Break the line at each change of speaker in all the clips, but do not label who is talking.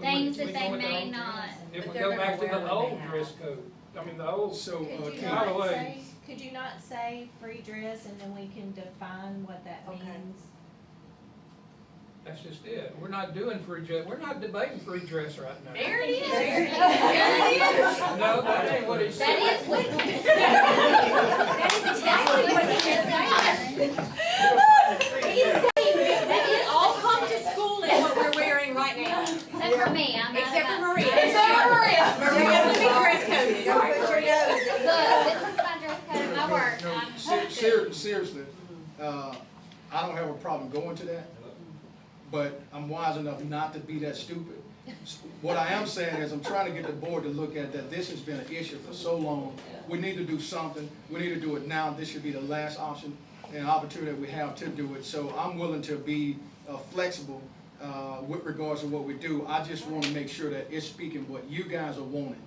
Things
we
that
go
they
with the
may
old-
not.
If we
But they're
go
gonna
back to
wear
the
what they
old
have.
dress code, I mean, the old,
So, uh,
Could you
By the
Kate,
not
way-
say, could you not say free dress and then we can define what that
Okay.
means?
that's just it. We're not doing free dress, we're not debating free dress right now.
There it is.
There it is.
No, that ain't what he said.
That is what.
That is
exactly what he
just
That is
All come to school in what we're wearing right now.
Except for me, I'm not.
Except for
about-
Maria.
Except for Maria.
Maria, let me dress code. it.
Don't put your
Look, this is my dress code, my work.
No,
I'm-
ser- ser- Seriously, uh, I don't have a problem going to that, but I'm wise enough not to be that stupid. What I am saying is, I'm trying to get the board to look at that this has been an issue for so long. We need to do something, we need to do it now, this should be the last option and opportunity that we have to do it. So I'm willing to be uh, flexible uh, with regards to what we do. I just want to make sure that it's speaking what you guys are wanting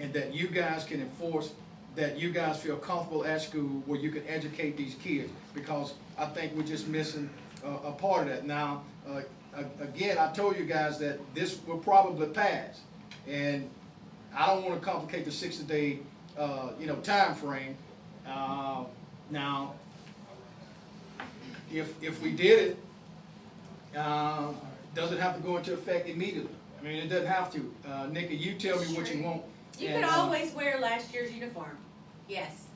and that you guys can enforce, that you guys feel comfortable at school where you can educate these kids, because I think we're just missing a, a part of that. Now, uh, a- again, I told you guys that this will probably pass, and I don't wanna complicate the sixty-day, uh, you know, timeframe. Uh, now, if, if we did it, um, doesn't have to go into effect immediately. I mean, it doesn't have to. Uh, Nikki, you tell me what you want.
You
and,
could
uh,
always wear last year's uniform. Yes.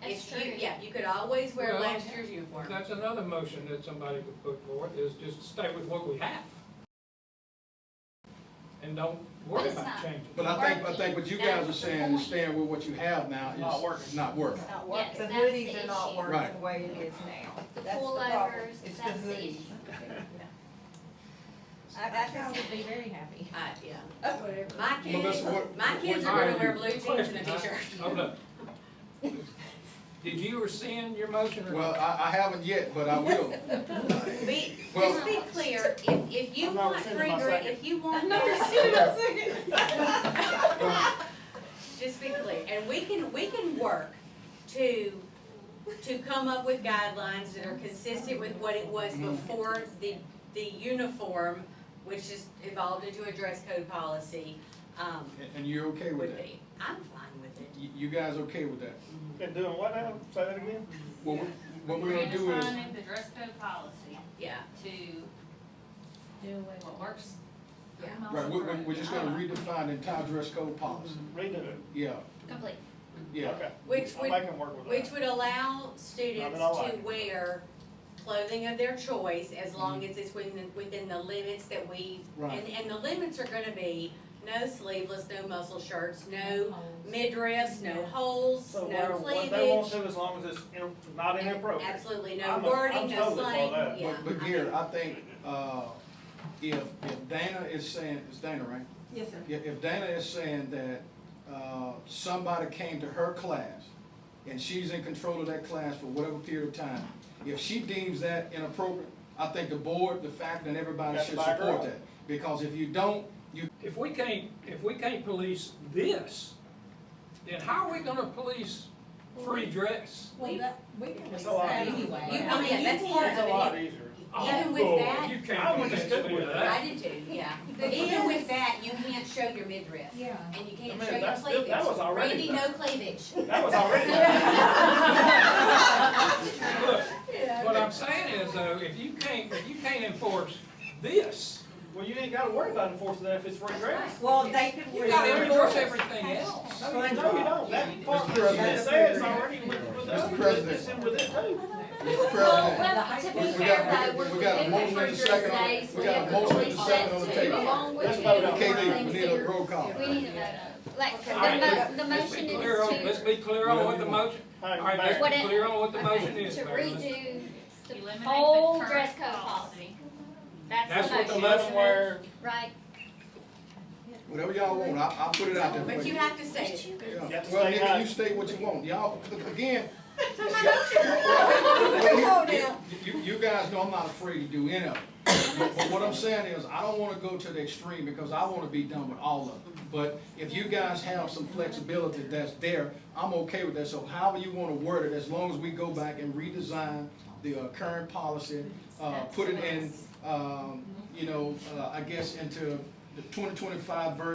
That's
If you-
true.
Yeah, you could always wear
Well,
last year's uniform.
That's another motion that somebody could put forth, is just stay with what we have. And don't worry
It's
about
not-
changing.
But I think, I think what you guys are saying is staying with what you have now
Not
is
working.
not working.
Yes,
working.
that's
The
the
hoodies are not
issue.
working
Right.
the way it is now.
The
That's the problem.
pullovers,
It's the
that's the
hoodies.
issue.
I, I
I
just,
would be very happy.
Uh, yeah. My kids,
Melissa, what-
my kids are gonna wear blue jeans and a t-shirt.
Hold up. Did you rescind your motion or?
Well, I, I haven't yet, but I will.
Be,
Well-
just be clear, if, if you
I'm not
want
rescinding
free
my
dress,
second.
if you want. Just be clear, and we can, we can work to, to come up with guidelines that are consistent with what it was before the, the uniform, which is evolved into a dress code policy, um,
And- And you're okay with
would
that?
be. I'm fine with it.
You, you guys okay with that?
And doing what now? Say that again?
Well, what we're gonna do
We're
is,
defining the dress code policy
Yeah,
to
Do away with
what works.
yeah.
right, we, we- we're just gonna redefine the entire dress code policy.
Redo it.
Mm-hmm.
Yeah,
Complete.
yeah.
Okay.
Which
I
would-
make 'em work with that.
Which would allow students
Not at all.
to wear clothing of their choice as long as it's within, the- within the limits that we, and,
Mm-hmm. Right.
and the limits are gonna be no sleeveless, no muscle shirts, no midriffs, no holes,
So
no
where- what they won't
cleavage.
do as long as it's in- not inappropriate.
Absolutely no
I'm a- I'm
wording, no
totally for
slang,
that.
yeah.
But, but
I
here,
mean,
I think, uh, if, if Dana is saying, it's Dana, right?
yes, sir.
If, if Dana is saying that, uh, somebody came to her class, and she's in control of that class for whatever period of time, if she deems that inappropriate, I think the board, the faculty, and everybody
Got to
should
back her
support
up.
that. Because if you don't, you,
If we can't, if we can't police this, then how are we gonna police free dress?
Well, that, we can
It's a lot.
decide anyway.
You-
I
I mean,
mean,
that's
you
part
can-
of
It's a lot easier.
Even with
Oh,
that-
You
I
can't
would
convince
stick
me
with
of
that.
I did too, yeah. But even with that, you can't show your midriff.
Yeah.
And you
I
can't
mean,
show your
that's- that- that was
cleavage.
already
Randy, no
done.
cleavage.
That was already.
Look, What I'm saying is though, if you can't, if you can't enforce this,
Well, you ain't gotta worry about enforcing that if it's free dress.
Well, they could
you gotta
wear
enforce
shorts.
everything else.
No, you don't. That part
Mr.
that
President.
it says is already with, with
Mr.
us,
President.
it's in with it too.
Mr.
Well, well,
President,
to
We-
be
we
fair
got-
though,
we-
we're
we got
doing
a motion
free
and a
dress
second on-
days,
we
we
got a
have
motion and a
police
second on the
that too,
table.
along with.
Let's vote on it.
everything
KD, we need a
considered.
roll call.
We need to vote on, like, the
All right,
mo- the
Let's
motion
be
is
clear on, let's
to,
be clear on what the motion,
Hey,
all right, let's
Mayor,
What it-
be clear on what the motion is.
to
Mayor. Let's-
redo the
Eliminate the
whole
current
dress code policy.
policy.
That's
That's
the
what the
motion,
motion is.
right?
whatever y'all want, I, I'll put it out there for
But you
you.
have to say it.
You have
Yeah.
to
Well,
stay
Nikki,
high.
you state what you want. Y'all, again,
Come on now.
You, you guys know I'm not afraid to do any of it. But but what I'm saying is, I don't wanna go to the extreme because I wanna be done with all of it. But if you guys have some flexibility that's there, I'm okay with that. So however you wanna word it, as long as we go back and redesign the uh, current policy, uh, put it in, um, you know, uh, I guess into the the twenty twenty-five version